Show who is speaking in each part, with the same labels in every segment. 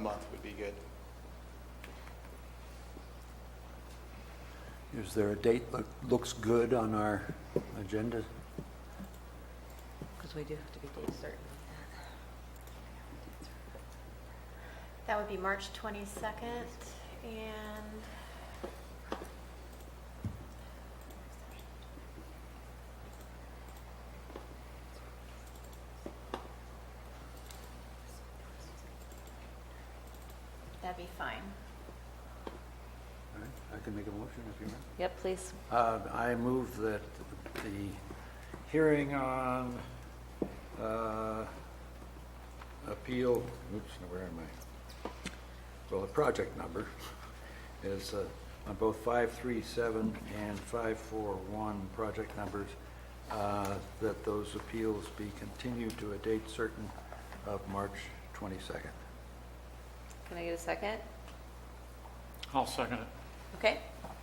Speaker 1: month would be good.
Speaker 2: Is there a date that looks good on our agenda?
Speaker 3: Because we do have to be date certain.
Speaker 4: That would be March 22nd, and that'd be fine.
Speaker 2: All right, I can make a motion if you want.
Speaker 3: Yep, please.
Speaker 2: Uh, I move that the hearing on uh, appeal, oops, now where am I? Well, the project number is uh, on both 537 and 541 project numbers, uh, that those appeals be continued to a date certain of March 22nd.
Speaker 3: Can I get a second?
Speaker 5: I'll second it.
Speaker 3: Okay.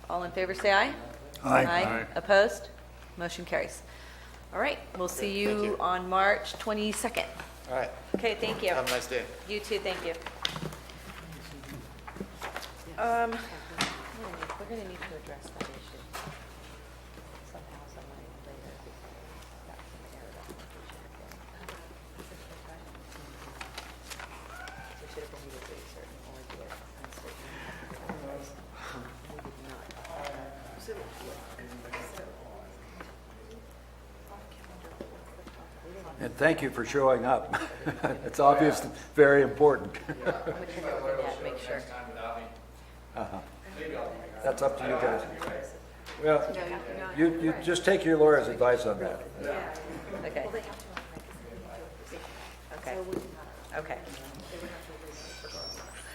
Speaker 3: All in favor, say aye.
Speaker 2: Aye.
Speaker 5: Aye.
Speaker 3: Opposed? Motion carries. All right, we'll see
Speaker 1: Okay, thank
Speaker 3: you
Speaker 1: you.
Speaker 3: on March 22nd.
Speaker 1: All right,
Speaker 3: Okay, thank you.
Speaker 1: have a nice day.
Speaker 3: You too, thank you. Um, We're going to need to address that issue somehow, some way, later. That's an error that we should have done. So we should have been either pretty certain or do it uncertain. We did not.
Speaker 2: And thank you for showing up. It's obviously very important.
Speaker 3: I'm going to take a look at that, make sure.
Speaker 2: That's up to you guys. Well, you, you just take your lawyer's advice on that.
Speaker 3: Okay. Okay. Okay.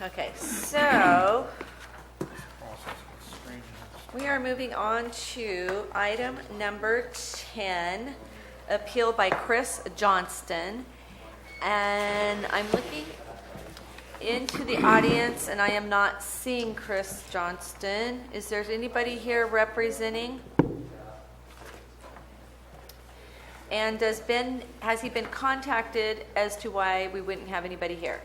Speaker 3: Okay, so we are moving on to item number 10, appeal by Chris Johnston. And I'm looking into the audience and I am not seeing Chris Johnston. Is there anybody here representing? And does Ben, has he been contacted as to why we wouldn't have anybody here?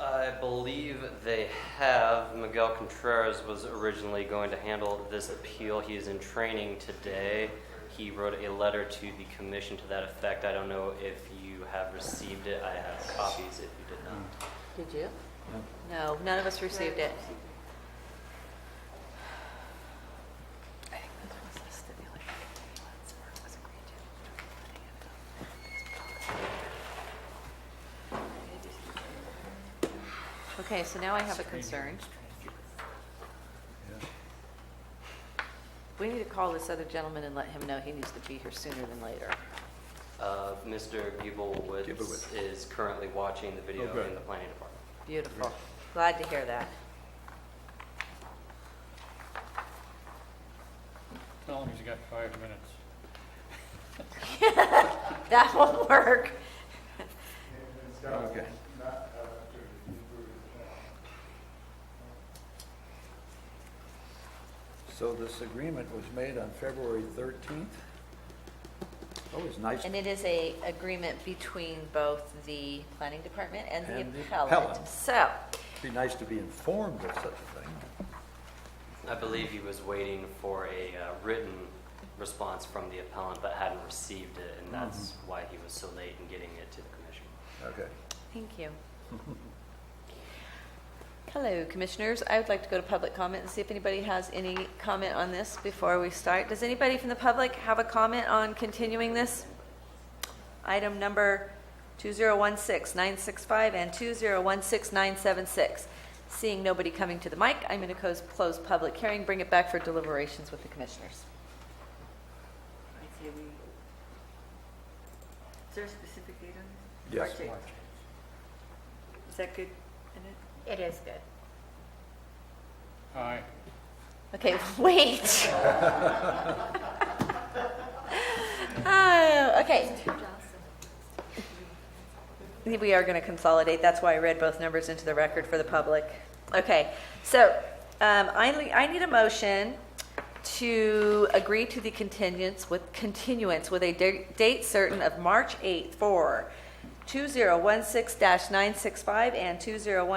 Speaker 6: I believe they have. Miguel Contreras was originally going to handle this appeal. He is in training today. He wrote a letter to the commission to that effect. I don't know if you have received it. I have copies if you did not.
Speaker 3: Did you? No, none of us received it. Okay, so now I have a concern. We need to call this other gentleman and let him know he needs to be here sooner than later.
Speaker 6: Uh, Mr. Gubelwitz
Speaker 2: Gubelwitz.
Speaker 6: is currently watching the video
Speaker 2: Oh, good.
Speaker 6: in the planning department.
Speaker 3: Beautiful. Glad to hear that.
Speaker 5: Tell him he's got five minutes.
Speaker 3: That will work.
Speaker 2: Okay. So this agreement was made on February 13th? Always nice.
Speaker 3: And it is a agreement between both the planning department and the
Speaker 2: And the
Speaker 3: appellant.
Speaker 2: appellant.
Speaker 3: So,
Speaker 2: Be nice to be informed of such a thing.
Speaker 6: I believe he was waiting for a uh, written response from the appellant but hadn't received it, and that's why he was so late in getting it to the commission.
Speaker 2: Okay.
Speaker 3: thank you. Hello, commissioners. I would like to go to public comment and see if anybody has any comment on this before we start. Does anybody from the public have a comment on continuing this? Item number 2016965 and 2016976. Seeing nobody coming to the mic, I'm going to close public hearing, bring it back for deliberations with the commissioners.
Speaker 7: Is there a specific date on this?
Speaker 2: Yes.
Speaker 7: March eighth. Is that good in it?
Speaker 4: It is good.
Speaker 5: Aye.
Speaker 3: Okay, wait. oh, okay. We are going to consolidate. That's why I read both numbers into the record for the public. Okay, so um, I, le- I need a motion to agree to the continuance with continuance with a da- date certain of March 8th for 2016-965 and 2016.